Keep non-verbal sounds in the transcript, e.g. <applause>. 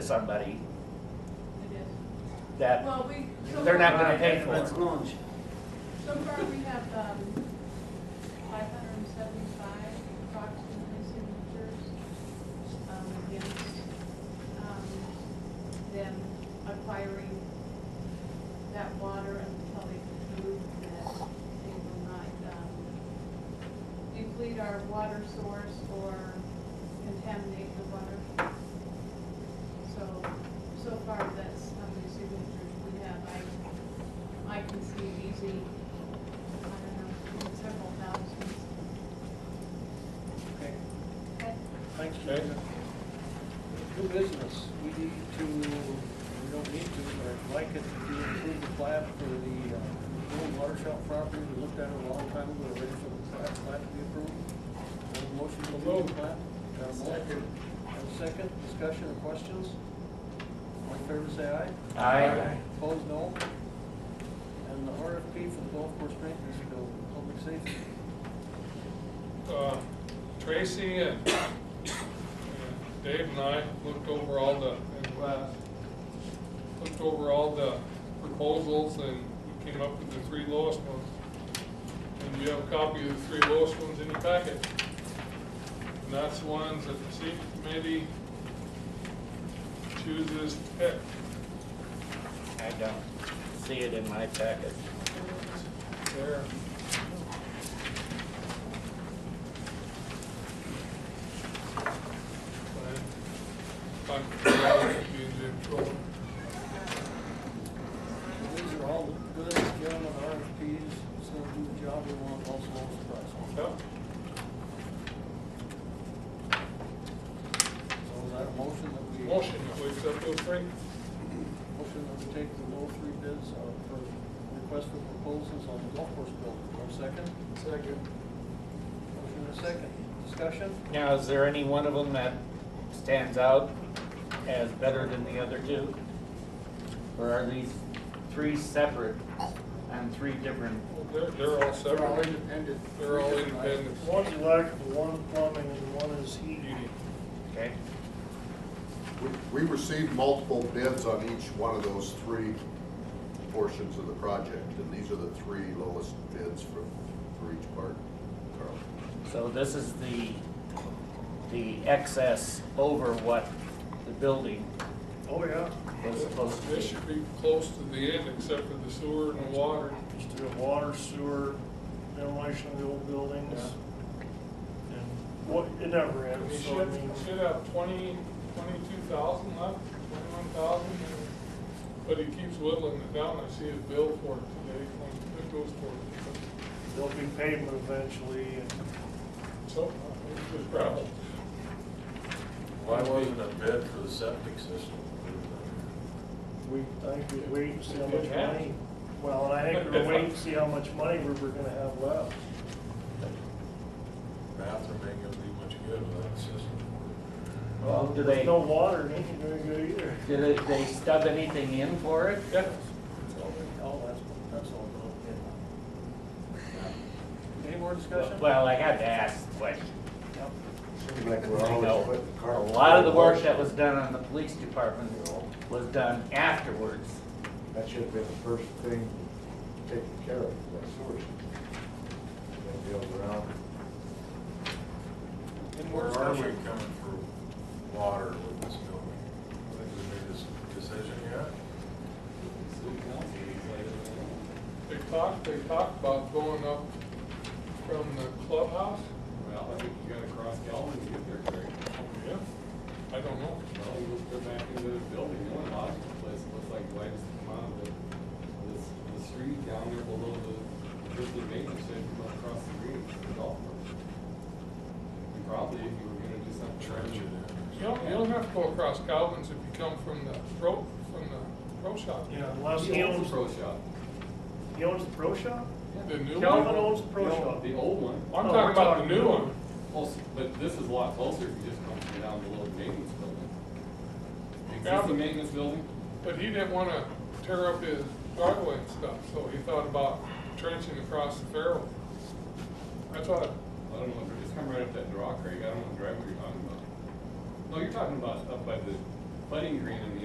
somebody It is. that, Well, we. so They're not far- gonna pay for it. Let's launch. So far, we have, um, five hundred and seventy-five approximately signatures, um, against, um, them acquiring that water until they prove that they will not, um, deplete our water source or contaminate the water. So, so far, that's how many signatures we have. I, I can see easy, I don't know, several thousands. Okay, Okay. thanks, Jason. New business, we need to, we don't need to, but I'd like it to be approve the plat for the uh, old water shop property we looked at it a long time ago, ready for the plat, plat to be approved. Have a motion to approve the plat? Got a motion? Second. Have a second, discussion or questions? All in favor, say aye. Aye. Opposed, no. And the RFP for the golf course maintenance bill, public safety. Uh, Tracy and <coughs> and Dave and I looked over all the, and Wes, looked over all the proposals and we came up with the three lowest ones. And you have a copy of the three lowest ones in your packet. And that's the ones that the safety committee chooses to pick. I don't see it in my packet. There. Fine. Fine. Be in control. These are all the goods, gentlemen, RFPs, it's gonna do the job we want, also holds the price. Yep. So is that a motion that we? Motion, if we accept those three. Motion that we take the low three bids uh, for request for proposals on the golf course building. One second. Second. Motion and a second. Discussion? Now, is there any one of them that stands out as better than the other two? Or are these three separate and three different? They're, they're all They're all separate. independent. They're all independent. One's electrical, one plumbing, and one is heating. Beauty. Okay, We- We received multiple bids on each one of those three portions of the project, and these are the three lowest bids for, for each part, Carl. so this is the, the excess over what the building Oh, yeah. was supposed to This be. should be close to the end, except for the sewer and the water. Just do water, sewer, demolition of the old buildings. And what, it never And we ends, so I should, mean, should have twenty, twenty-two thousand left, twenty-one thousand. But he keeps whittling it down. I see his bill for it today, it goes for it. there'll be pavement eventually, and So, uh, it's just gravel. Why wasn't a bid for the septic system? we, I think we'd wait and see how much Good hat. money. Well, and I think we'll wait and see how much money we we're gonna have left. Bathroom ain't gonna do much good without a system. Well, do There's they, no water, it ain't very good either. did it- they stub anything in for it? Yeah. Oh, that's, that's all good. Any more discussion? Well, I had to ask the question. Yep. Seems like we're I always know. putting A Carl. lot of the work that was done on the police department was done afterwards. That should have been the first thing taken care of, that sewer system. That deals around. Any more Where are we discussion? coming for water with this building? I think we made this decision yet. They talked, they talked about going up from the clubhouse. Well, I think you gotta cross Galvin to get there, Craig. Oh, yeah. I don't know. Well, you go back into the building, the only logical place that looks like why is to come out of the, this, the street down there below the, just the maintenance shed, you go across the green to the golf course. You probably, if you were gonna do something. Trench it in. You don't, you don't have to go across Calvin's if you come from the pro, from the pro shop. Yeah, unless He he owns owns, the pro shop. he owns the pro shop? The new Calvin one. owns the pro No, shop. The old one. I'm talking No, we're about talking the new new one. Also, but this is a lot closer if you just come from down below the maintenance building. Yeah. Is this the maintenance building? But he didn't wanna tear up his driveway and stuff, so he thought about trenching across the Farrell. That's what, I don't know, if just come right up that draw, Craig, I don't know what driveway you're talking about. No, you're talking about up by the putting green in the